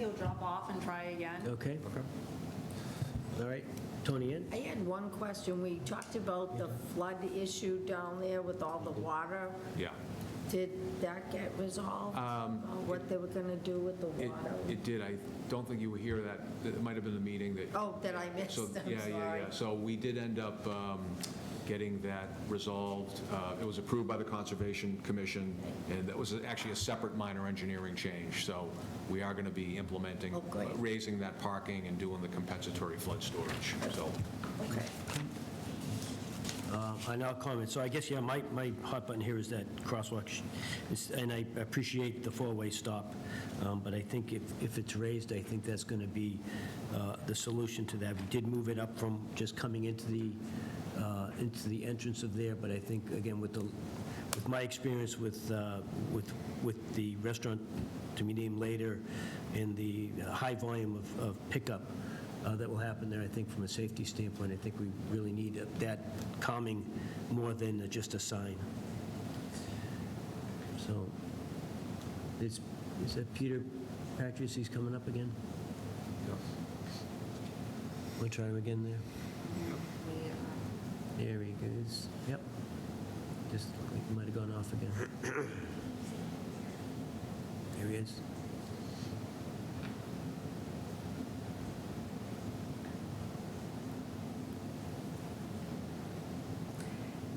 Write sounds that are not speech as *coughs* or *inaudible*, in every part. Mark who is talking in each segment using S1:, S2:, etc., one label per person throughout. S1: you'll drop off and try again.
S2: Okay? Okay. All right, Tony in?
S3: I had one question. We talked about the flood issue down there with all the water.
S4: Yeah.
S3: Did that get resolved? Uh, What they were going to do with the
S4: Um, It,
S3: water?
S4: it did, I don't think you were here that, it might have been the meeting that.
S3: Oh, that I missed, *laughs*
S4: So,
S3: I'm
S4: yeah, yeah,
S3: sorry.
S4: yeah, so we did end up um, getting that resolved. Uh, It was approved by the Conservation Commission, and that was actually a separate minor engineering change, so we are going to be implementing, uh,
S3: Oh, great.
S4: raising that parking and doing the compensatory flood storage, so.
S3: Okay.
S2: Uh, I now comment, so I guess, yeah, my, my hot button here is that crosswalk, sh- is- and I appreciate the four-way stop, um, but I think if, if it's raised, I think that's going to be uh, the solution to that. We did move it up from just coming into the, uh, into the entrance of there, but I think, again, with the, with my experience with, uh, with, with the restaurant to be named later, and the uh, high volume of of pickup, uh, that will happen there, I think, from a safety standpoint. I think we really need that calming more than just a sign. So, is, is that Peter Patrice, he's coming up again? Want to try him again there? There he goes. Yep. Just, looked like he might have gone off again. There he is.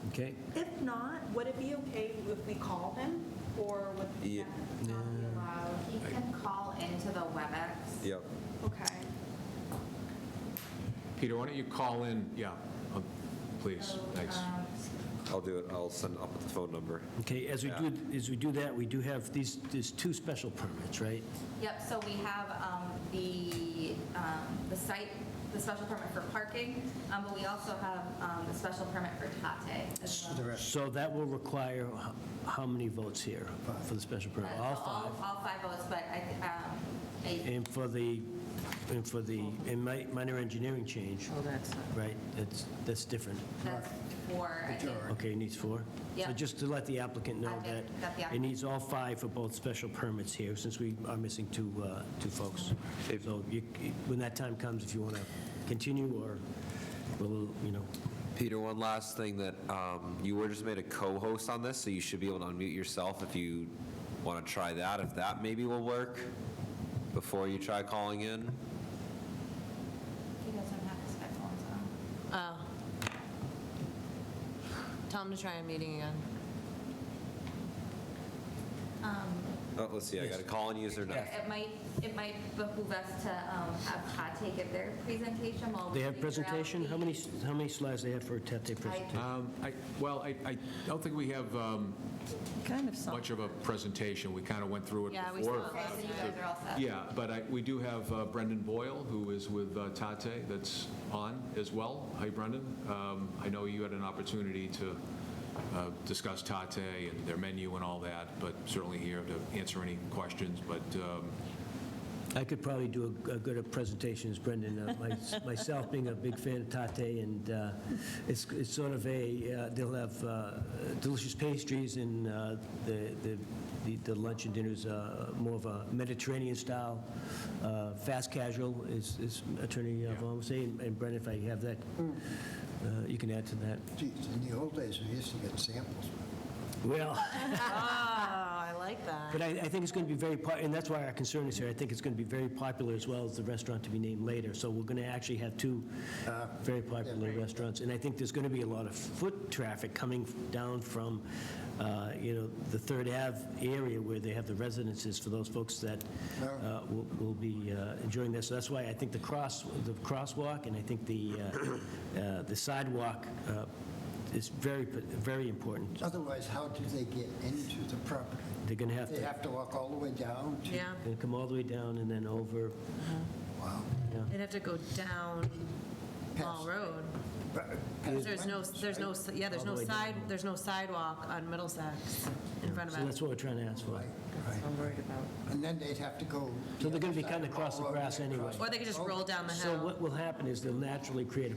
S2: Okay.
S1: If not, would it be okay if we called him, or would that not be allowed?
S5: He can call into the WebEx.
S6: Yep.
S1: Okay.
S4: Peter, why don't you call in, yeah, uh, please, thanks.
S7: um,
S6: I'll do it. I'll send up the phone number.
S2: Okay, as we do, as we do that, we do have these, there's two special permits, right?
S5: Yep, so we have um, the, um, the site, the special permit for parking, um, but we also have um, the special permit for Tate. as well.
S2: So that will require h- how many votes here for the special permit?
S5: Uh, so
S2: All five?
S5: All five votes, but I, thi- um, a-
S2: And for the, and for the, and mi- minor engineering change,
S7: Oh, that's, not-
S2: right? That's, that's different.
S5: that's for, I think,
S2: Okay, it needs four?
S5: Yeah.
S2: So just to let the applicant know
S5: I did-
S2: that
S5: got the
S2: it
S5: app-
S2: needs all five for both special permits here, since we are missing two, uh, two folks.
S6: If-
S2: So you, when that time comes, if you want to continue or, we'll, you know,
S6: Peter, one last thing that um, you were just made a co-host on this, so you should be able to unmute yourself if you want to try that. If that maybe will work before you try calling in.
S5: he doesn't have his headphones on.
S7: Oh. tell him to try a meeting again.
S6: Oh, let's see. I got a call and user now.
S5: It might, it might behoove us to um, have Tate give their presentation while we
S2: they have
S5: figure out
S2: presentation?
S5: the-
S2: How many, how many slides they have for a Tate presentation?
S4: Um, I- Well, I I don't think we have um,
S7: Kind of some.
S4: much of a presentation, we kind of went through it before.
S7: Yeah, we saw it
S5: Okay,
S7: last
S5: so you
S7: night.
S5: guys are all set.
S4: Yeah, but I, we do have uh, Brendan Boyle, who is with uh, Tate, that's on as well. Hi, Brendan. Um, I know you had an opportunity to uh, discuss Tate and their menu and all that, but certainly here to answer any questions, but um,
S2: I could probably do a a good a presentation as Brendan, uh, my- myself being a big fan of Tate, and uh, it's it's sort of a, uh, they'll have uh, delicious pastries, and uh, the the the the lunch and dinner's uh, more of a Mediterranean-style, uh, fast casual, is is Attorney uh, Vaughn saying, and Brendan, if I have that, uh, you can add to that.
S8: Geez, in the old days, we used to get samples.
S2: Well...
S7: *laughs* Ah, I like that.
S2: But I, I think it's going to be very, po- and that's why our concern is here, I think it's going to be very popular as well as the restaurant to be named later. So we're going to actually have two
S7: Uh,
S2: very popular restaurants. And I think there's going to be a lot of foot traffic coming down from, uh, you know, the Third Ave area where they have the residences for those folks that uh, will will be uh, enjoying this. So that's why I think the cross, the crosswalk and I think the uh, *coughs* uh, the sidewalk uh, is very, very important.
S8: Otherwise, how do they get into the property?
S2: They're going to have to.
S8: They have to walk all the way down to...
S7: Yeah,
S2: Gonna come all the way down and then over,
S8: Wow.
S7: they'd have to go down Mall
S8: Past.
S7: Road.
S8: But- uh,
S7: 'Cause There's no, there's no, yeah, there's no
S2: All the way down.
S7: side, there's no sidewalk on Middlesex in front of
S2: so
S7: us.
S2: that's what we're trying to ask for.
S8: Right, right.
S7: I'm worried about.
S8: And then they'd have to go...
S2: So they're gonna be
S8: the Oh.
S2: cutting
S8: other side,
S2: across the
S8: all over
S2: grass
S8: and
S2: anyway.
S8: across.
S7: Or they could just roll down the hill.
S2: So what will happen is they'll naturally create a